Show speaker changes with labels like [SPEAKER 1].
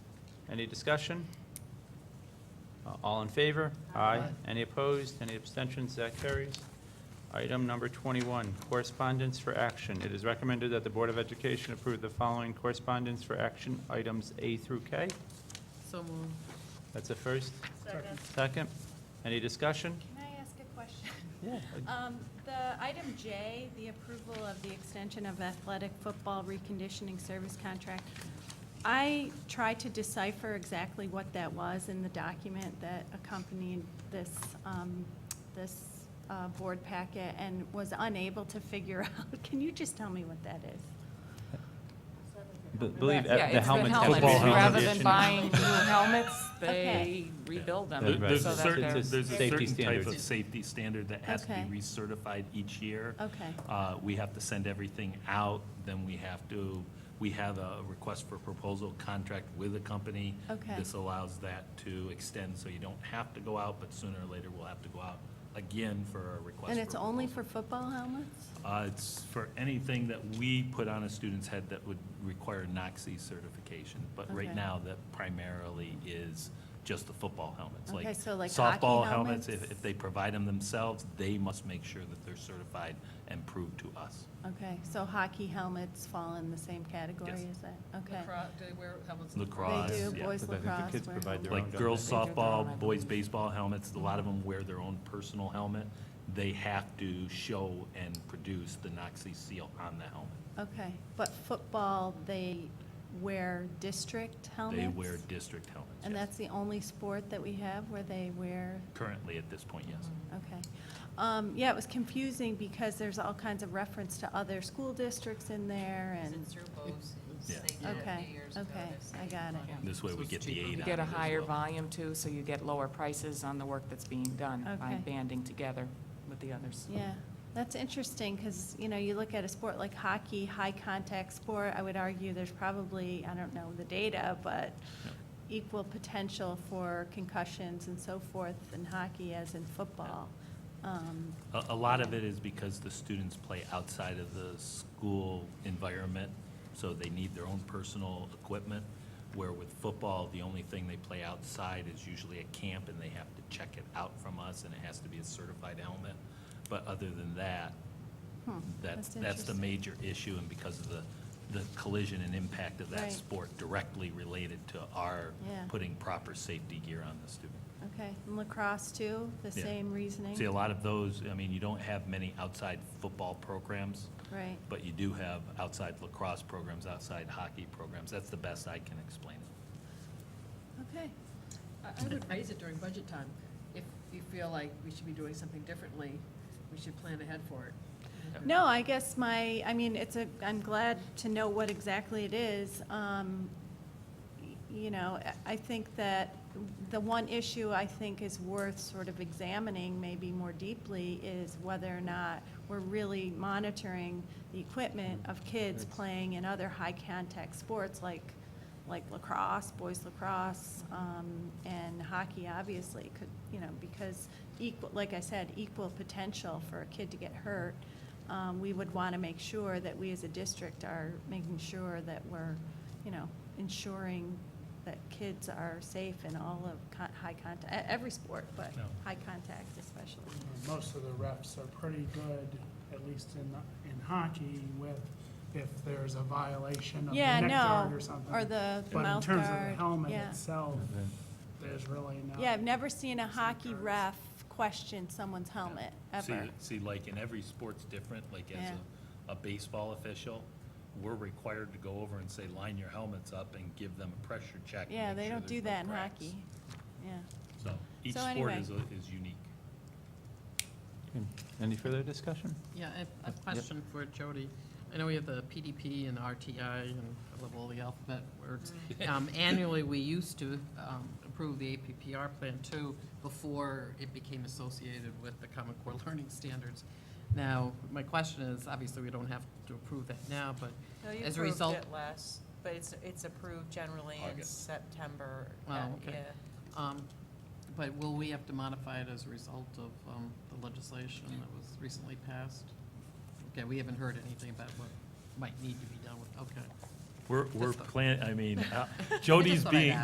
[SPEAKER 1] Any discussion? Uh, All in favor? Any opposed? Any abstentions? That carries. Item number 21, correspondence for action. It is recommended that the Board of Education approve the following correspondence for action, items A through K.
[SPEAKER 2] So moved.
[SPEAKER 1] That's a first.
[SPEAKER 3] Second.
[SPEAKER 1] Second. Any discussion?
[SPEAKER 3] Can I ask a question?
[SPEAKER 1] Yeah.
[SPEAKER 3] Um, The item J, the approval of the extension of athletic football reconditioning service contract, I tried to decipher exactly what that was in the document that accompanied this, um, this uh, board packet and was unable to figure out. Can you just tell me what that is?
[SPEAKER 1] B- Believe
[SPEAKER 2] Yeah,
[SPEAKER 1] uh, the
[SPEAKER 2] it's the
[SPEAKER 1] helmets. have to be
[SPEAKER 2] helmets. Rather
[SPEAKER 1] reconditioned.
[SPEAKER 2] than buying new helmets, they
[SPEAKER 3] Okay.
[SPEAKER 2] rebuild them.
[SPEAKER 1] There-
[SPEAKER 4] There- There's
[SPEAKER 2] so
[SPEAKER 1] Right.
[SPEAKER 4] a
[SPEAKER 2] that
[SPEAKER 4] certain,
[SPEAKER 2] they're-
[SPEAKER 1] It's
[SPEAKER 4] there's a
[SPEAKER 1] safety
[SPEAKER 4] certain type
[SPEAKER 1] standards.
[SPEAKER 4] of safety standard that has to
[SPEAKER 3] Okay.
[SPEAKER 4] be recertified each year.
[SPEAKER 3] Okay.
[SPEAKER 4] Uh, We have to send everything out, then we have to, we have a request for proposal contract with a company.
[SPEAKER 3] Okay.
[SPEAKER 4] This allows that to extend, so you don't have to go out, but sooner or later, we'll have to go out again for a request.
[SPEAKER 3] And it's
[SPEAKER 4] for
[SPEAKER 3] only
[SPEAKER 4] proposal.
[SPEAKER 3] for football helmets?
[SPEAKER 4] Uh, It's for anything that we put on a student's head that would require NOC certification. But right
[SPEAKER 3] Okay.
[SPEAKER 4] now, that primarily is just the football helmets.
[SPEAKER 3] Okay, so like hockey
[SPEAKER 4] Softball helmets,
[SPEAKER 3] helmets?
[SPEAKER 4] if, if they provide them themselves, they must make sure that they're certified and proved to us.
[SPEAKER 3] Okay, so hockey helmets fall in the same category
[SPEAKER 4] Yes.
[SPEAKER 3] as that? Okay.
[SPEAKER 2] Lacrosse- they wear helmets.
[SPEAKER 4] Lacrosse.
[SPEAKER 3] They do,
[SPEAKER 4] yeah.
[SPEAKER 3] boys
[SPEAKER 1] But I think the
[SPEAKER 3] lacrosse.
[SPEAKER 1] kids
[SPEAKER 3] wear
[SPEAKER 1] provide their
[SPEAKER 3] helmets.
[SPEAKER 4] Like
[SPEAKER 1] own
[SPEAKER 4] girls
[SPEAKER 2] helmet. They do their own, I
[SPEAKER 4] softball, boys
[SPEAKER 2] believe.
[SPEAKER 4] baseball helmets, a lot of them wear their own personal helmet. They have to show and produce the NOC seal on the helmet.
[SPEAKER 3] Okay, but football, they wear district helmets?
[SPEAKER 4] They wear district helmets,
[SPEAKER 3] And
[SPEAKER 4] yes.
[SPEAKER 3] that's the only sport that we have where they wear,
[SPEAKER 4] Currently, at this point,
[SPEAKER 3] Mm-hmm.
[SPEAKER 4] yes.
[SPEAKER 3] okay. Um, Yeah, it was confusing because there's all kinds of reference to other school districts in there
[SPEAKER 5] Is
[SPEAKER 3] and,
[SPEAKER 5] it through Bose?
[SPEAKER 4] Yeah.
[SPEAKER 5] They did it a
[SPEAKER 3] okay,
[SPEAKER 5] few years ago.
[SPEAKER 3] okay,
[SPEAKER 5] They've
[SPEAKER 3] I
[SPEAKER 5] saved
[SPEAKER 3] got
[SPEAKER 5] money.
[SPEAKER 3] it.
[SPEAKER 4] This way we get the aid on it
[SPEAKER 2] You get a
[SPEAKER 4] as
[SPEAKER 2] higher
[SPEAKER 4] well.
[SPEAKER 2] volume too, so you get lower prices on the work that's being done by
[SPEAKER 3] Okay.
[SPEAKER 2] banding together with the others.
[SPEAKER 3] Yeah, that's interesting because, you know, you look at a sport like hockey, high contact sport, I would argue there's probably, I don't know the data, but equal potential for concussions and so forth in hockey as in football. Um,
[SPEAKER 4] A, a lot of it is because the students play outside of the school environment, so they need their own personal equipment. Where with football, the only thing they play outside is usually at camp, and they have to check it out from us, and it has to be a certified helmet. But other than that,
[SPEAKER 3] hmm,
[SPEAKER 4] that's, that's
[SPEAKER 3] interesting.
[SPEAKER 4] the major issue, and because of the, the collision and impact of
[SPEAKER 3] Right.
[SPEAKER 4] that sport directly related to our
[SPEAKER 3] Yeah.
[SPEAKER 4] putting proper safety gear on the student.
[SPEAKER 3] Okay, and lacrosse too, the
[SPEAKER 4] Yeah.
[SPEAKER 3] same reasoning?
[SPEAKER 4] See, a lot of those, I mean, you don't have many outside football programs,
[SPEAKER 3] Right,
[SPEAKER 4] but you do have outside lacrosse programs, outside hockey programs. That's the best I can explain it.
[SPEAKER 3] okay.
[SPEAKER 6] I I would raise it during budget time. If you feel like we should be doing something differently, we should plan ahead for it.
[SPEAKER 3] No, I guess my, I mean, it's a, I'm glad to know what exactly it is. Um, y- You know, I- I think that the one issue I think is worth sort of examining maybe more deeply is whether or not we're really monitoring the equipment of kids playing in other high-contact sports like, like lacrosse, boys lacrosse, um, and hockey, obviously, could, you know, because equal, like I said, equal potential for a kid to get hurt um, we would want to make sure that we as a district are making sure that we're, you know, ensuring that kids are safe in all of con- high contact, e, every sport, but
[SPEAKER 4] No.
[SPEAKER 3] high contact especially.
[SPEAKER 7] Most of the refs are pretty good, at least in, in hockey, with if there's a violation of the
[SPEAKER 3] Yeah,
[SPEAKER 7] neck guard
[SPEAKER 3] no,
[SPEAKER 7] or something.
[SPEAKER 3] or the
[SPEAKER 7] But in
[SPEAKER 3] mouth
[SPEAKER 7] terms of the
[SPEAKER 3] guard,
[SPEAKER 7] helmet
[SPEAKER 3] yeah.
[SPEAKER 7] itself, there's really no.
[SPEAKER 3] Yeah, I've never seen a hockey
[SPEAKER 7] guards.
[SPEAKER 3] ref question someone's helmet, ever.
[SPEAKER 4] See, see, like in every sport's different, like as
[SPEAKER 3] Yeah.
[SPEAKER 4] a, a baseball official, we're required to go over and say, line your helmets up and give them a pressure check. to
[SPEAKER 3] Yeah,
[SPEAKER 4] make
[SPEAKER 3] they
[SPEAKER 4] sure
[SPEAKER 3] don't do
[SPEAKER 4] there's no
[SPEAKER 3] that in
[SPEAKER 4] cracks.
[SPEAKER 3] hockey, yeah.
[SPEAKER 4] So each
[SPEAKER 3] So
[SPEAKER 4] sport
[SPEAKER 3] anyway.
[SPEAKER 4] is, a- is unique.
[SPEAKER 1] Any further discussion?
[SPEAKER 8] Yeah, I have a question for Jody. I know we have the PDP and RTI and I love all the alphabet words.
[SPEAKER 3] Mm.
[SPEAKER 8] Um, Annually, we used to um, approve the APPR plan too before it became associated with the Common Core Learning Standards. Now, my question is, obviously, we don't have to approve that now, but
[SPEAKER 5] No, you
[SPEAKER 8] as a
[SPEAKER 5] approved
[SPEAKER 8] result.
[SPEAKER 5] it last, but it's, it's approved generally in
[SPEAKER 4] August.
[SPEAKER 5] September.
[SPEAKER 8] Oh,
[SPEAKER 5] uh,
[SPEAKER 8] okay.
[SPEAKER 5] yeah.
[SPEAKER 8] um, But will we have to modify it as a result of um, the legislation that was recently passed? Okay, we haven't heard anything about what might need to be done with, okay.
[SPEAKER 4] We're, we're
[SPEAKER 8] Just the-
[SPEAKER 4] plan, I mean, uh, Jody's
[SPEAKER 8] thought I'd
[SPEAKER 4] being,
[SPEAKER 8] ask.